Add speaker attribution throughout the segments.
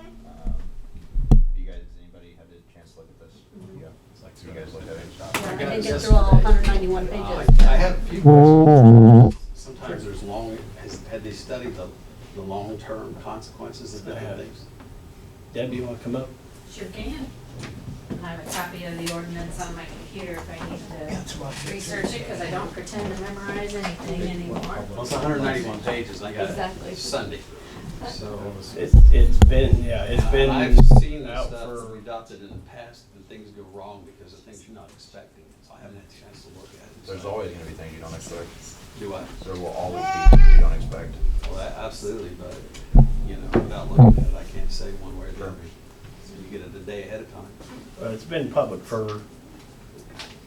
Speaker 1: Um,
Speaker 2: got
Speaker 3: They
Speaker 2: it
Speaker 3: get through all
Speaker 2: yesterday.
Speaker 3: 191
Speaker 2: I-
Speaker 3: pages.
Speaker 2: I have a few questions. Sometimes there's long, has, had they studied the, the long-term consequences of
Speaker 4: I
Speaker 2: different
Speaker 4: have.
Speaker 2: things?
Speaker 4: Deb, you wanna come up?
Speaker 5: Sure can. I have a copy of the ordinance on my computer if I need to research it, because I don't pretend to memorize anything anymore.
Speaker 2: Well, it's hundred and ninety-one pages, I got
Speaker 5: Exactly.
Speaker 2: it Sunday, so.
Speaker 4: It's, it's been, yeah, it's been
Speaker 2: I've seen the
Speaker 4: out
Speaker 2: stuff that
Speaker 4: for,
Speaker 2: we adopted in the past, and things go wrong because of things you're not expecting, so I haven't had a chance to look at it.
Speaker 1: There's
Speaker 2: so-
Speaker 1: always gonna be things you don't expect.
Speaker 2: Do I?
Speaker 1: There will always be things you don't expect.
Speaker 2: Well, a- absolutely, but, you know, without looking at it, I can't say one way or the other. So You get it a day ahead of time.
Speaker 4: uh, it's been public for,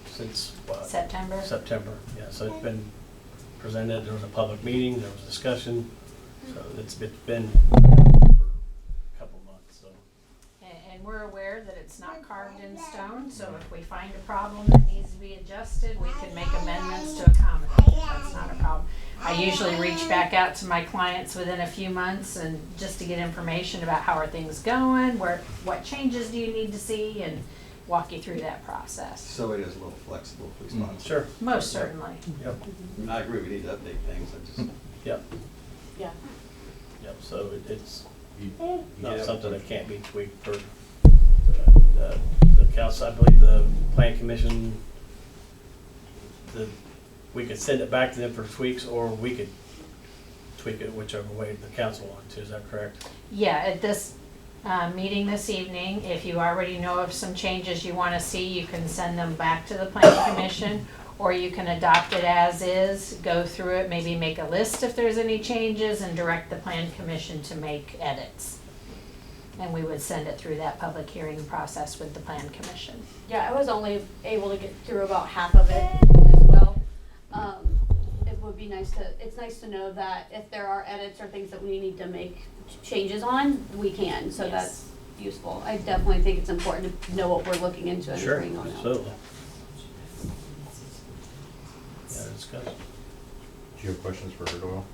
Speaker 4: since, what,
Speaker 5: September?
Speaker 4: September, yeah, so it's been presented, there was a public meeting, there was discussion, so it's, it's been out for a couple months, so.
Speaker 5: And, and we're aware that it's not carved in stone, so if we find a problem that needs to be adjusted, we can make amendments to accommodate it. That's not a problem. I usually reach back out to my clients within a few months and just to get information about how are things going, where, what changes do you need to see, and walk you through that process.
Speaker 2: So it is a little flexible, please, Bob.
Speaker 4: Sure,
Speaker 5: Most certainly.
Speaker 4: yep,
Speaker 2: I agree, we need to update things, I just,
Speaker 4: yep,
Speaker 3: Yeah.
Speaker 4: yep, so it- it's
Speaker 1: You-
Speaker 4: not
Speaker 1: Yeah.
Speaker 4: something that can't be tweaked or, uh, the council, I believe the plan commission, the, we could send it back to them for tweaks, or we could tweak it whichever way the council wants to, is that correct?
Speaker 5: Yeah, at this uh, meeting this evening, if you already know of some changes you want to see, you can send them back to the planning commission, or you can adopt it as is, go through it, maybe make a list if there's any changes, and direct the plan commission to make edits. And we would send it through that public hearing process with the plan commission.
Speaker 3: Yeah, I was only able to get through about half of it as well. Um, It would be nice to, it's nice to know that if there are edits or things that we need to make ch- changes on, we can, so
Speaker 5: Yes.
Speaker 3: that's useful. I definitely think it's important to know what we're looking into and
Speaker 4: Sure,
Speaker 3: agreeing on. it.
Speaker 4: absolutely. Yeah, discuss,
Speaker 1: Do you have questions for her, Doyle?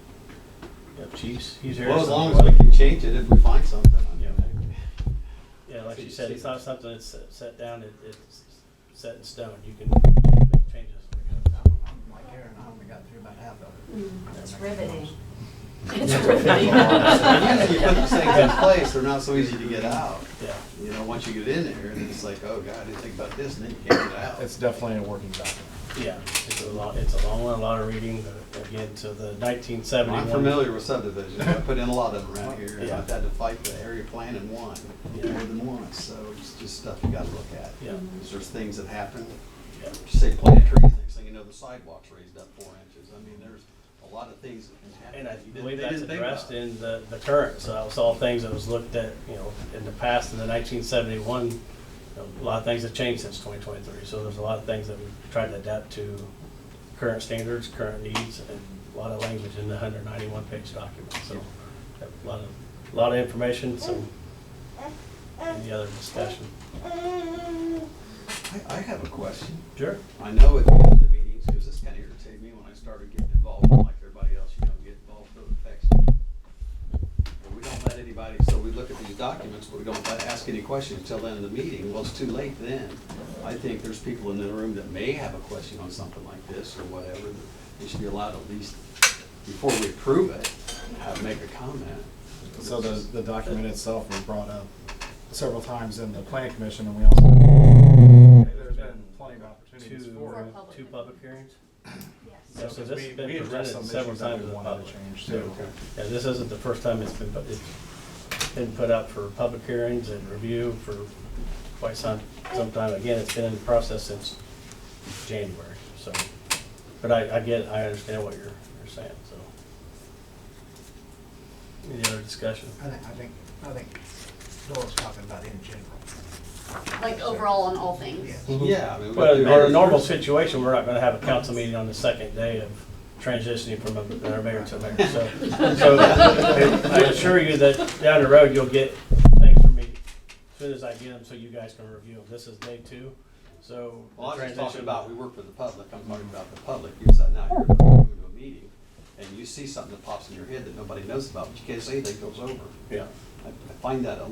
Speaker 4: yep, chiefs, he's here.
Speaker 2: well, as
Speaker 4: so-
Speaker 2: long as we can change it if we find something. I mean,
Speaker 4: Yeah, like you said, it's not something that's set- set down, it- it's set in stone, you can make changes.
Speaker 6: Like Aaron, I only got through about half of
Speaker 3: Mm.
Speaker 6: it.
Speaker 5: It's riveting.
Speaker 3: It's
Speaker 2: Usually you put
Speaker 3: riveting.
Speaker 2: these things in place, they're not so easy to get out.
Speaker 4: Yeah,
Speaker 2: You know, once you get in there, and it's like, oh, God, I didn't think about this, and then you can't get out.
Speaker 6: It's definitely a working document.
Speaker 4: yeah, it's a lot, it's a long one, a lot of reading, but again, to the nineteen
Speaker 2: Well,
Speaker 4: seventy-one.
Speaker 2: I'm familiar with subdivisions, I put in a lot of them around here, and
Speaker 4: Yeah.
Speaker 2: I've had to fight the area plan and one,
Speaker 4: Yeah.
Speaker 2: more than once, so it's just stuff you gotta look at.
Speaker 4: Yeah,
Speaker 2: Because There's things that happen,
Speaker 4: yeah,
Speaker 2: say plant trees, next thing you know, the sidewalk's raised up four inches, I mean, there's a lot of things that can happen.
Speaker 4: and I
Speaker 2: that you didn't-
Speaker 4: believe
Speaker 2: they
Speaker 4: that's
Speaker 2: didn't think about.
Speaker 4: addressed in the, the current, so that was all things that was looked at, you know, in the past, in the nineteen seventy-one. A lot of things have changed since twenty twenty-three, so there's a lot of things that we've tried to adapt to current standards, current needs, and a lot of language in the hundred ninety-one page document, so. A lot of, a lot of information, so, any other discussion?
Speaker 2: I, I have a question,
Speaker 4: Sure.
Speaker 2: I know at the end of the meetings, because this kinda irritated me when I started getting involved, like everybody else, you know, get involved till it affects you. But we don't let anybody, so we look at these documents, but we don't let- ask any questions until the end of the meeting, well, it's too late then. I think there's people in the room that may have a question on something like this or whatever, that they should be allowed at least, before we approve it, have, make a comment.
Speaker 6: So the, the document itself was brought up several times in the planning commission and we also. There's been plenty of opportunities
Speaker 4: Two,
Speaker 6: for it.
Speaker 3: public.
Speaker 4: two public hearings?
Speaker 3: Yes.
Speaker 4: Yeah, so this has
Speaker 6: Because we-
Speaker 4: been
Speaker 6: we
Speaker 4: presented
Speaker 6: addressed some
Speaker 4: several
Speaker 6: issues that
Speaker 4: times
Speaker 6: we
Speaker 4: to the
Speaker 6: wanted
Speaker 4: public.
Speaker 6: to change
Speaker 4: Yeah,
Speaker 6: too.
Speaker 4: Yeah, this isn't the first time it's been, it's been put up for public hearings and review for quite some, some time. Again, it's been in the process since January, so, but I, I get, I understand what you're, you're saying, so. Any other discussion?
Speaker 7: I think, I think, I think Dora's talking about in general.
Speaker 3: Like overall on all things.
Speaker 7: Yes.
Speaker 2: Yeah. I mean, we
Speaker 4: Well,
Speaker 2: do
Speaker 4: in our
Speaker 2: it.
Speaker 4: normal situation, we're not gonna have a council meeting on the second day of transitioning from a- our mayor to a mayor, so. So I assure you that down the road, you'll get things from me as soon as I get them, so you guys can review them. This is day two, so. the
Speaker 2: Well, I was just talking
Speaker 4: transition-
Speaker 2: about, we work for the public, I'm talking about the public, you sat now, you're going to a meeting, and you see something that pops in your head that nobody knows about, but you can't say anything goes over.
Speaker 4: Yeah.
Speaker 2: I I find that a